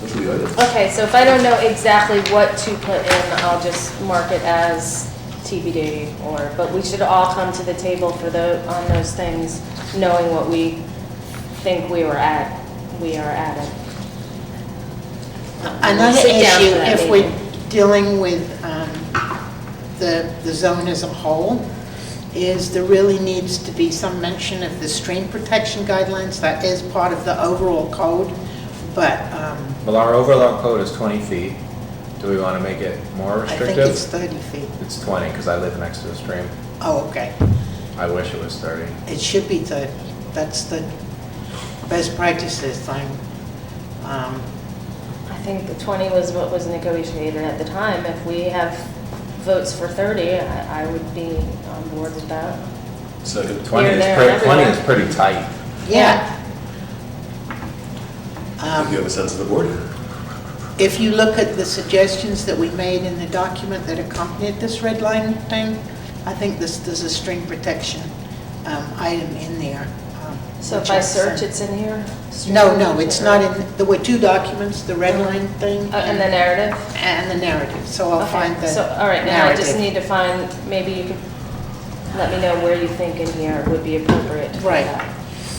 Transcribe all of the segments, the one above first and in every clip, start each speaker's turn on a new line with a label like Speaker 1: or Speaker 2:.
Speaker 1: Those are the items.
Speaker 2: Okay, so if I don't know exactly what to put in, I'll just mark it as TBD or, but we should all come to the table for the, on those things, knowing what we think we were at, we are at it.
Speaker 3: Another
Speaker 2: Sit down
Speaker 3: issue,
Speaker 2: for that
Speaker 3: if we're
Speaker 2: meeting.
Speaker 3: dealing with um, the, the zone as a whole, is there really needs to be some mention of the stream protection guidelines. That is part of the overall code, but um,
Speaker 4: Well, our overall code is 20 feet. Do we want to make it more
Speaker 3: I think
Speaker 4: restrictive?
Speaker 3: it's 30 feet.
Speaker 4: It's 20, because I live next to the stream.
Speaker 3: Oh, okay.
Speaker 4: I wish it was 30.
Speaker 3: It should be 30. That's the best practices thing. Um,
Speaker 2: I think the 20 was what was negotiated at the time. If we have votes for 30, I I would be on board with that.
Speaker 1: Second.
Speaker 4: 20
Speaker 2: Here,
Speaker 4: is
Speaker 2: there,
Speaker 4: pretty, 20 is
Speaker 2: everywhere.
Speaker 4: pretty tight.
Speaker 3: Yeah.
Speaker 1: Do you
Speaker 3: Um,
Speaker 1: have a sense of the board?
Speaker 3: If you look at the suggestions that we made in the document that accompanied this red line thing, I think this, there's a string protection um, item in there. um,
Speaker 2: So if
Speaker 3: which
Speaker 2: I search,
Speaker 3: sent.
Speaker 2: it's in here?
Speaker 3: No, no, it's not in, there were two documents, the red line thing.
Speaker 2: Uh, And the narrative?
Speaker 3: And the narrative, so I'll
Speaker 2: Okay,
Speaker 3: find the
Speaker 2: So, all right, now I just
Speaker 3: narrative.
Speaker 2: need to find, maybe you could let me know where you think in here would be appropriate. for
Speaker 3: Right.
Speaker 2: that.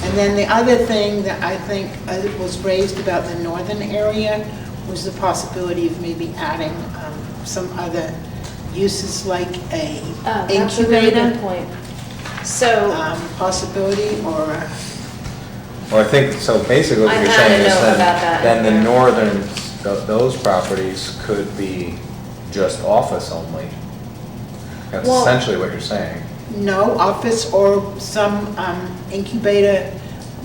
Speaker 3: And then the other thing that I think uh, was raised about the northern area was the possibility of maybe adding um, some other uses like a
Speaker 2: Oh, that's a really good
Speaker 3: incubator
Speaker 2: point. So
Speaker 3: um, possibility or, a-
Speaker 4: Well, I think, so basically what
Speaker 2: I
Speaker 4: you're
Speaker 2: had a
Speaker 4: saying is
Speaker 2: note
Speaker 4: then,
Speaker 2: about that.
Speaker 4: then the northern, th- those properties could be just office only. That's
Speaker 2: Well-
Speaker 4: essentially what you're saying.
Speaker 3: no, office or some um, incubator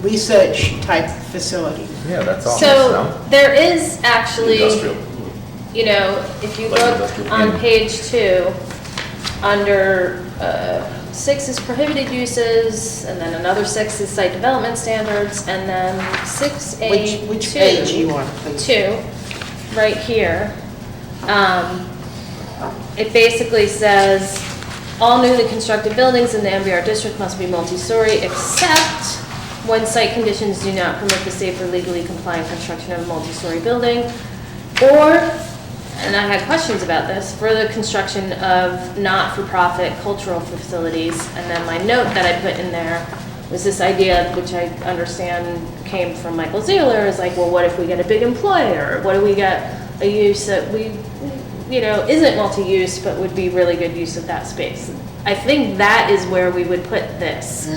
Speaker 3: research type facility.
Speaker 4: Yeah, that's office,
Speaker 2: So
Speaker 4: no?
Speaker 2: there is actually,
Speaker 1: Industrial.
Speaker 2: you know, if you
Speaker 1: Light
Speaker 2: look
Speaker 1: industrial.
Speaker 2: on
Speaker 4: Mm.
Speaker 2: page two, under uh, six is prohibited uses, and then another six is site development standards, and then six A
Speaker 3: Which,
Speaker 2: two.
Speaker 3: which page you want, please?
Speaker 2: two, right here, um, it basically says, all newly constructed buildings in the MBR district must be multi-story except when site conditions do not permit the safe or legally compliant construction of a multi-story building, or, and I had questions about this, for the construction of not-for-profit cultural facilities. And then my note that I put in there was this idea, which I understand came from Michael Zeller, is like, well, what if we get a big employer? What do we get a use that we, you know, isn't multi-use, but would be really good use of that space? I think that is where we would put this.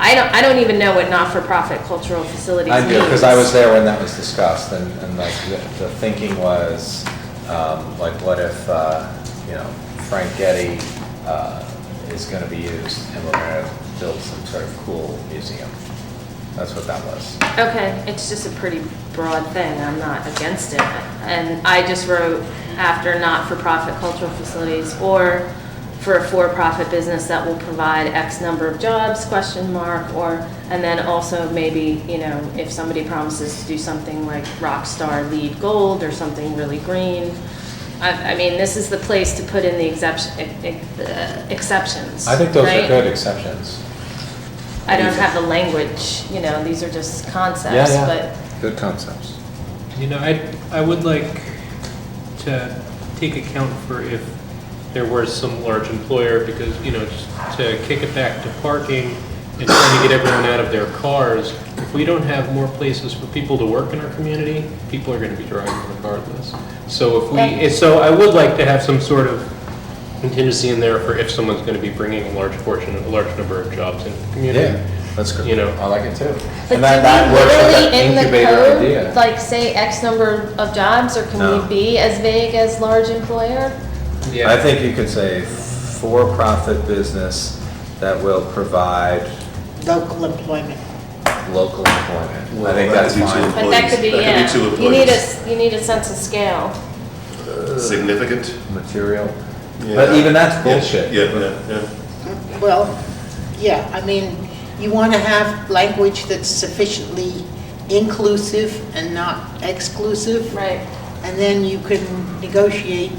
Speaker 2: I don't, I don't even know what not-for-profit cultural facilities
Speaker 4: I
Speaker 2: means.
Speaker 4: do, because I was there when that was discussed, and, and like, the, the thinking was, um, like, what if, uh, you know, Frank Getty, uh, is gonna be used, and we're gonna build some sort of cool museum. That's what that was.
Speaker 2: Okay, it's just a pretty broad thing, I'm not against it. And I just wrote after not-for-profit cultural facilities or for a for-profit business that will provide X number of jobs, question mark, or, and then also maybe, you know, if somebody promises to do something like rock star lead gold or something really green. I, I mean, this is the place to put in the exception, ex- uh, exceptions,
Speaker 4: I think those are
Speaker 2: right?
Speaker 4: good exceptions.
Speaker 2: I don't have the language, you know, these are just
Speaker 4: Yeah,
Speaker 2: concepts, but.
Speaker 4: yeah, good concepts.
Speaker 5: You know, I, I would like to take account for if there were some large employer, because, you know, just to kick it back to parking and trying to get everyone out of their cars, if we don't have more places for people to work in our community, people are gonna be driving regardless. So if we, eh, so I would like to have some sort of contingency in there for if someone's gonna be bringing a large portion, a large number of jobs into the community.
Speaker 4: Yeah, that's good.
Speaker 5: You know.
Speaker 4: I like it too.
Speaker 2: But do
Speaker 4: And that, that
Speaker 2: we
Speaker 4: works with
Speaker 2: literally
Speaker 4: that
Speaker 2: in the
Speaker 4: incubator
Speaker 2: code,
Speaker 4: idea.
Speaker 2: like say X number of jobs, or
Speaker 4: No.
Speaker 2: can we be as vague as large employer?
Speaker 4: I think you could say for-profit business that will provide
Speaker 3: Local employment.
Speaker 4: local employment. I think
Speaker 1: Well,
Speaker 4: that's
Speaker 1: that's usually-
Speaker 4: fine.
Speaker 2: But that could be,
Speaker 1: Employees. That
Speaker 2: yeah,
Speaker 1: could be two
Speaker 2: you need a,
Speaker 1: employees.
Speaker 2: s- you need a sense of scale.
Speaker 1: Significant.
Speaker 4: Material. Uh, But even that's
Speaker 1: Yeah,
Speaker 4: bullshit.
Speaker 1: Yeah, yeah, yeah.
Speaker 3: Well, yeah, I mean, you want to have language that's sufficiently inclusive and not exclusive.
Speaker 2: Right.
Speaker 3: And then you can negotiate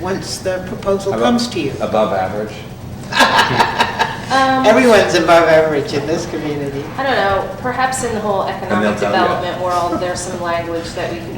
Speaker 3: once the proposal
Speaker 4: How about
Speaker 3: comes to you.
Speaker 4: Above average.
Speaker 2: Um,
Speaker 3: Everyone's above average in this community.
Speaker 2: I don't know, perhaps in the whole
Speaker 4: they'll
Speaker 2: economic
Speaker 4: tell you.
Speaker 2: development world, there's some language that we can